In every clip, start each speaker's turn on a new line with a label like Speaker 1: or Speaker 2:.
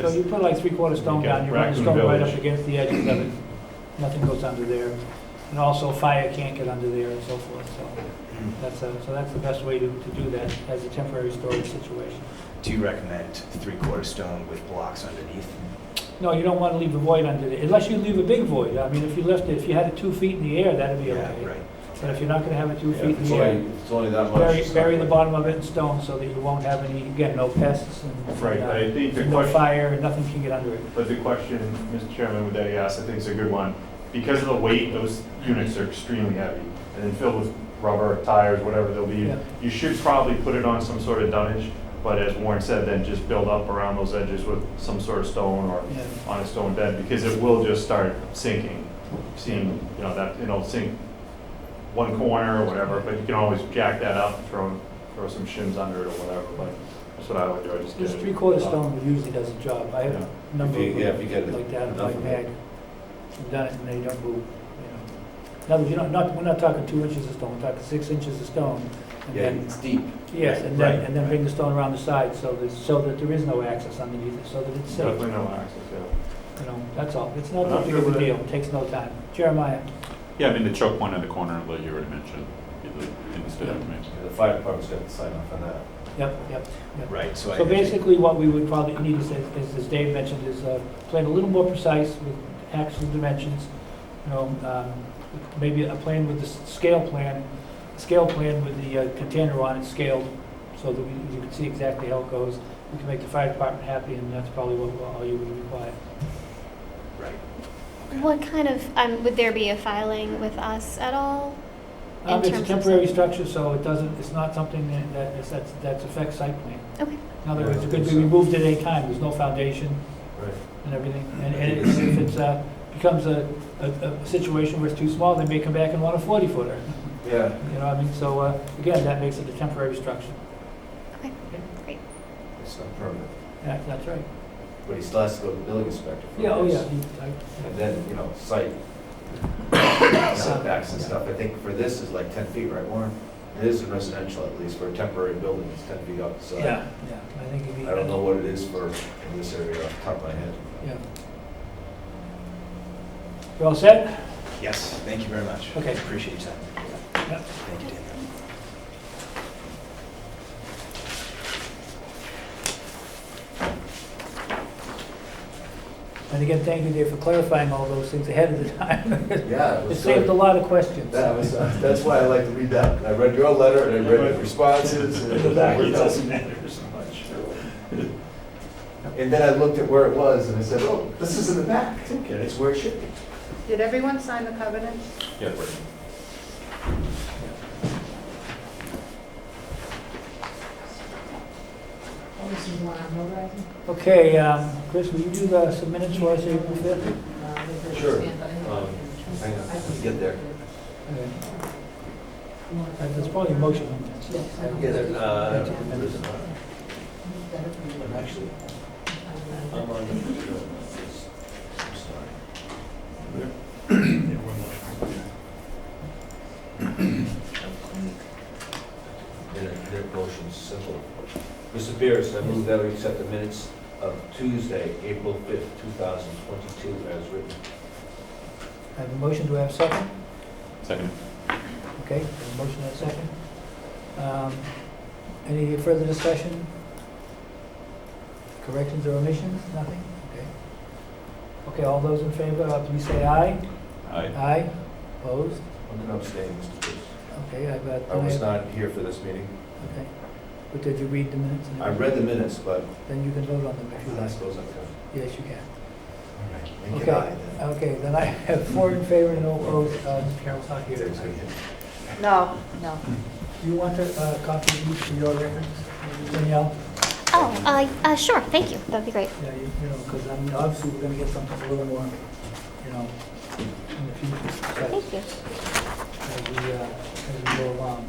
Speaker 1: So you put like three-quarter stone
Speaker 2: Okay,
Speaker 1: down, you run the
Speaker 2: Raccoon
Speaker 1: stone right
Speaker 2: Village.
Speaker 1: up against the edges of it. Nothing goes under there. And also fire can't get under there and so forth, so that's, a- so that's the best way to, to do that as a temporary storage situation.
Speaker 3: Do you recommend three-quarter stone with blocks underneath?
Speaker 1: No, you don't want to leave a void under there, unless you leave a big void. I mean, if you left it, if you had it two feet in the air, that'd be
Speaker 3: Yeah,
Speaker 1: okay.
Speaker 3: right.
Speaker 1: But if you're not going to have it two
Speaker 2: Yeah,
Speaker 1: feet
Speaker 2: if
Speaker 1: in
Speaker 2: It's
Speaker 1: the air,
Speaker 2: only, if it's only that much.
Speaker 1: bury,
Speaker 2: it's
Speaker 1: bury
Speaker 2: not-
Speaker 1: the bottom of it in stone so that you won't have any, again, no pests and.
Speaker 2: Right,
Speaker 1: uh,
Speaker 2: I think the
Speaker 1: No
Speaker 2: question-
Speaker 1: fire, nothing can get under it.
Speaker 2: But the question, Mr. Chairman, that he asked, I think is a good one. Because of the weight, those units are extremely heavy and then filled with rubber, tires, whatever they'll be.
Speaker 1: Yeah.
Speaker 2: You should probably put it on some sort of dunnage, but as Warren said, then just build up around those edges with some sort of stone or
Speaker 1: Yeah.
Speaker 2: on a stone bed because it will just start sinking, seeing, you know, that, it'll sink one corner or whatever, but you can always jack that up, throw, throw some shims under it or whatever, but that's what I would do, I just get
Speaker 1: This
Speaker 2: it
Speaker 1: three-quarter
Speaker 2: up.
Speaker 1: stone usually does the job. I have
Speaker 2: Yeah.
Speaker 1: a number
Speaker 4: If you- yeah, if you
Speaker 1: of
Speaker 4: get
Speaker 1: like that in my
Speaker 4: enough of
Speaker 1: bag.
Speaker 4: it.
Speaker 1: I've done it and they don't move, you know. Now, you know, not, we're not talking two inches of stone, we're talking six inches of stone. and
Speaker 4: Yeah,
Speaker 1: then
Speaker 4: it's deep.
Speaker 1: Yes, and
Speaker 2: Right,
Speaker 1: then, and then bring the stone around the side so that, so that there is no access underneath it, so that it's safe.
Speaker 2: Definitely no access, yeah.
Speaker 1: You know, that's all. It's not
Speaker 2: I'm
Speaker 1: that big of a
Speaker 2: sure
Speaker 1: deal. Takes no time. Jeremiah?
Speaker 5: Yeah, I mean, the choke point in the corner that you already mentioned, you instead of mentioned.
Speaker 4: The fire department's got to sign off on that.
Speaker 1: Yep, yep.
Speaker 3: Right, so I.
Speaker 1: So basically, what we would probably need is, is, as Dave mentioned, is a plan a little more precise with actual dimensions, you know, um, maybe a plan with the s- scale plan, scale plan with the uh, container on it scaled, so that we, you can see exactly how it goes. We can make the fire department happy, and that's probably what, all you would require.
Speaker 3: Right.
Speaker 6: What kind of, um, would there be a filing with us at all? In
Speaker 1: Um, it's a
Speaker 6: terms of
Speaker 1: temporary
Speaker 6: site-
Speaker 1: structure, so it doesn't, it's not something that, that, is- that's, that's affects site plan.
Speaker 6: Okay.
Speaker 1: In other words, it could
Speaker 4: Yeah, I
Speaker 1: be
Speaker 4: think so.
Speaker 1: removed at any time, there's no foundation,
Speaker 4: Right.
Speaker 1: and everything. And and if if it's, uh, becomes a, a, a situation where it's too small, they may come back and want a forty footer.
Speaker 4: Yeah.
Speaker 1: You know, what I mean, so, uh, again, that makes it a temporary structure.
Speaker 4: It's not permanent.
Speaker 1: That, that's right.
Speaker 4: But he still has to go to the building inspector for this.
Speaker 1: Yeah, oh, yeah. he- I-
Speaker 4: And then, you know, site setbacks and stuff. I think for this is like 10 feet, right, Warren? It is in residential at least, for a temporary building, it's 10 feet up, so.
Speaker 1: Yeah, yeah, I think it'd be.
Speaker 4: I don't know what it is for, in this area off the top of my head.
Speaker 1: Yeah. You all set?
Speaker 3: Yes, thank you very much.
Speaker 1: Okay.
Speaker 3: Appreciate that.
Speaker 1: Yep.
Speaker 3: Thank you, Daniel.
Speaker 1: And again, thank you, Dave, for clarifying all those things ahead of the time.
Speaker 4: Yeah.
Speaker 1: It saved a lot of questions.
Speaker 4: That was, uh, that's why I like to read that. I read your letter and I read the responses and it worked out.
Speaker 2: matter so much.
Speaker 4: And then I looked at where it was and I said, oh, this is in the back. It's where it should be.
Speaker 7: Did everyone sign the covenant?
Speaker 2: Yeah, right.
Speaker 7: Oh, this is the one I'm notarizing?
Speaker 1: Okay, um, Chris, will you do the some minutes for us, April fifth?
Speaker 7: Uh,
Speaker 4: Sure. Um, Hang on, let's get there.
Speaker 1: There's Uh, probably a motion on that.
Speaker 4: Yeah, there- uh, there's a- I'm actually, I'm on. I'm sorry. Their their motion's simple. Mr. Beers, I move that we accept the minutes of Tuesday, April 5th, 2022 as written.
Speaker 1: I have a motion, do I have a second?
Speaker 5: Second.
Speaker 1: Okay, a motion and a second. Um, Any further discussion? Corrections or omissions? Nothing? Okay. Okay, all those in favor, uh, please say aye.
Speaker 5: Aye.
Speaker 1: Aye. Opposed?
Speaker 4: I'm going to abstain, Mr. Beers.
Speaker 1: Okay, I've got.
Speaker 4: I was not here for this meeting.
Speaker 1: Okay. But did you read the minutes?
Speaker 4: I read the minutes, but
Speaker 1: Then you can vote on them if you
Speaker 4: I
Speaker 1: like.
Speaker 4: suppose I could.
Speaker 1: Yes, you can.
Speaker 4: And
Speaker 1: Okay.
Speaker 4: can I then?
Speaker 1: Okay, then I have four in favor and no opposed. Uh, Carol's not here.
Speaker 7: No, no.
Speaker 1: Do you want to uh, copy these for your reference, Danielle?
Speaker 6: Oh, uh, uh, sure, thank you, that'd be great.
Speaker 1: Yeah, you you know, because I mean, obviously, we're gonna get something a little more, you know, in the future, so,
Speaker 6: Thank you.
Speaker 1: as we, uh, as we go along.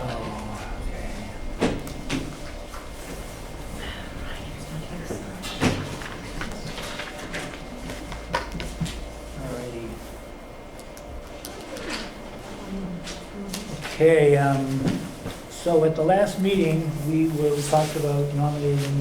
Speaker 1: Oh, okay. Alrighty. Okay, um, So at the last meeting, we were, we talked about nominating